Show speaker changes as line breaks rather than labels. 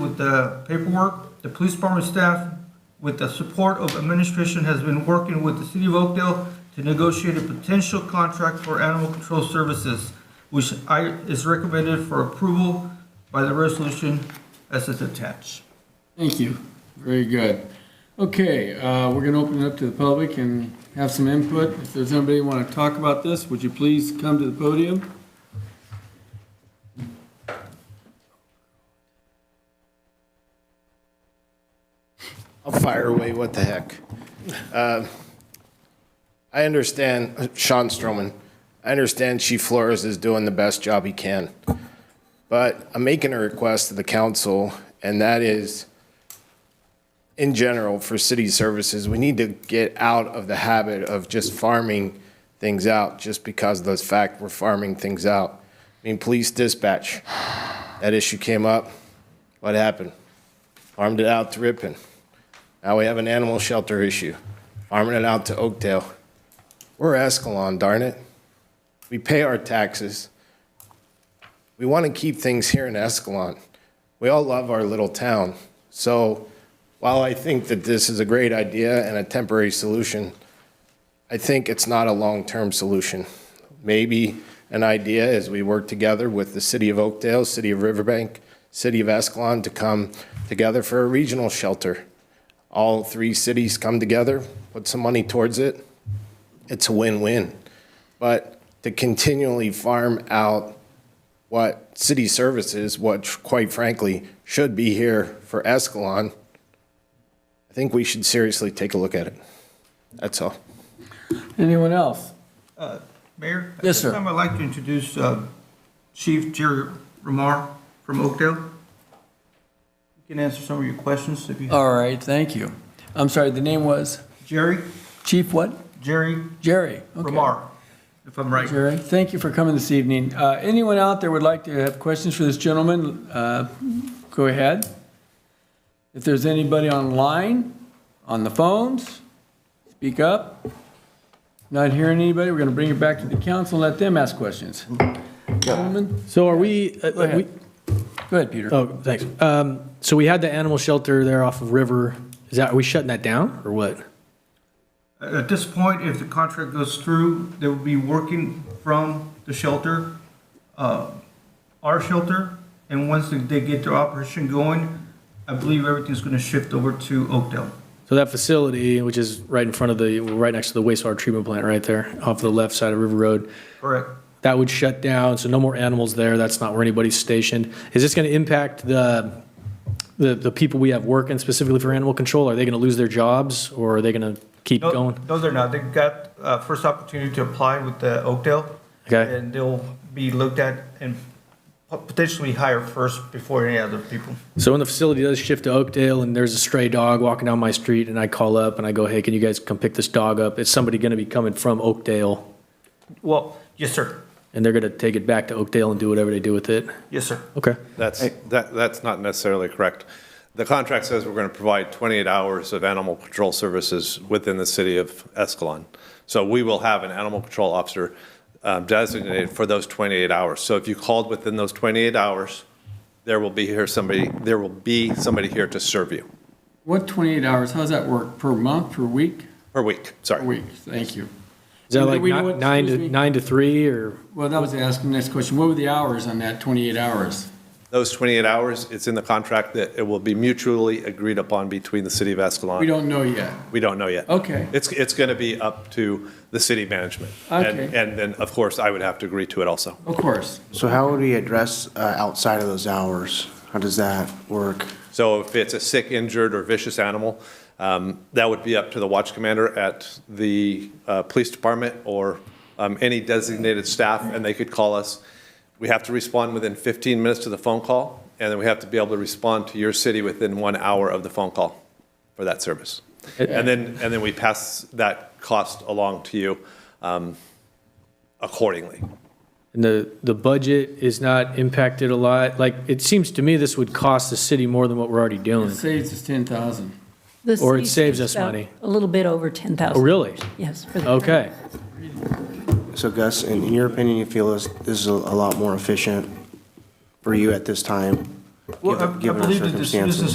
the paperwork. The police department staff, with the support of administration, has been working with the city of Oakdale to negotiate a potential contract for animal control services, which I, is recommended for approval by the resolution as is attached.
Thank you. Very good. Okay, uh, we're going to open it up to the public and have some input. If there's anybody who want to talk about this, would you please come to the podium?
I'll fire away, what the heck. Uh, I understand, uh, Sean Stroman, I understand Chief Flores is doing the best job he can, but I'm making a request to the council, and that is, in general, for city services, we need to get out of the habit of just farming things out just because of the fact we're farming things out. I mean, police dispatch, that issue came up. What happened? Farmed it out to Ripon. Now we have an animal shelter issue, farming it out to Oakdale. We're Escalon, darn it. We pay our taxes. We want to keep things here in Escalon. We all love our little town. So while I think that this is a great idea and a temporary solution, I think it's not a long-term solution. Maybe an idea is we work together with the city of Oakdale, city of Riverbank, city of Escalon to come together for a regional shelter. All three cities come together, put some money towards it. It's a win-win. But to continually farm out what city services, what quite frankly should be here for Escalon, I think we should seriously take a look at it. That's all.
Anyone else?
Uh, Mayor?
Yes,
At
sir.
this time, I'd like to introduce uh, Chief Jerry Ramar from Oakdale. You can answer some of your questions if you have.
All right, thank you. I'm sorry, the name was
Jerry,
Chief what?
Jerry
Jerry. Uh, Okay.
Ramar, if I'm right.
Jerry, thank you for coming this evening. Uh, Anyone out there would like to have questions for this gentleman, uh, go ahead. If there's anybody online, on the phones, speak up. Not hearing anybody, we're going to bring it back to the council and let them ask questions. Gentlemen,
So are we, uh,
go ahead.
we-
Go ahead, Peter.
oh, thanks. Um, So we had the animal shelter there off of River. Is that, are we shutting that down or what?
At this point, if the contract goes through, they will be working from the shelter, uh, our shelter, and once they- they get their operation going, I believe everything's going to shift over to Oakdale.
So that facility, which is right in front of the, right next to the wastewater treatment plant right there, off the left side of River Road,
Correct.
that would shut down, so no more animals there. That's not where anybody's stationed. Is this going to impact the, the, the people we have working specifically for animal control? Are they going to lose their jobs or are they going to keep
No,
going?
No, they're not. They got uh, first opportunity to apply with the Oakdale.
Okay.
And they'll be looked at and pot- potentially hired first before any other people.
So when the facility does shift to Oakdale and there's a stray dog walking down my street and I call up and I go, hey, can you guys come pick this dog up? Is somebody going to be coming from Oakdale
Well, yes, sir.
and they're going to take it back to Oakdale and do whatever they do with it?
Yes, sir.
Okay.
That's, that, that's not necessarily correct. The contract says we're going to provide 28 hours of animal control services within the city of Escalon. So we will have an animal control officer um, designated for those 28 hours. So if you called within those 28 hours, there will be here somebody, there will be somebody here to serve you
What 28 hours, how's that work? Per month, per week?
per week,
Per
sorry.
week, thank you.
Is that
And
like
we know
ni-
what-
nine to,
excuse me?
nine to three or?
Well, that was asking the next question. What were the hours on that 28 hours?
Those 28 hours, it's in the contract that it will be mutually agreed upon between the city of
We
Escalon.
don't know yet.
We don't know yet.
Okay.
It's, it's going to be up to the city management. And-
Okay.
And then, of course, I would have to agree to it also.
Of course.
So how would we address uh, outside of those hours? How does that work?
So if it's a sick, injured, or vicious animal, um, that would be up to the watch commander at the uh, police department or um, any designated staff, and they could call us. We have to respond within 15 minutes to the phone call, and then we have to be able to respond to your city within one hour of the phone call for that service. And then, and then we pass that cost along to you um, accordingly.
And the, the budget is not impacted a lot. Like, it seems to me this would cost the city more than what we're already doing.
Saves us 10,000.
The
Or it
city
saves us
about
money.
A little bit over 10,000.
Oh, really?
Yes. for the-
Okay.
So Gus, in in your opinion, you feel this this is a a lot more efficient for you at this time?
Well, I I
given our
believe that this
circumstances.
business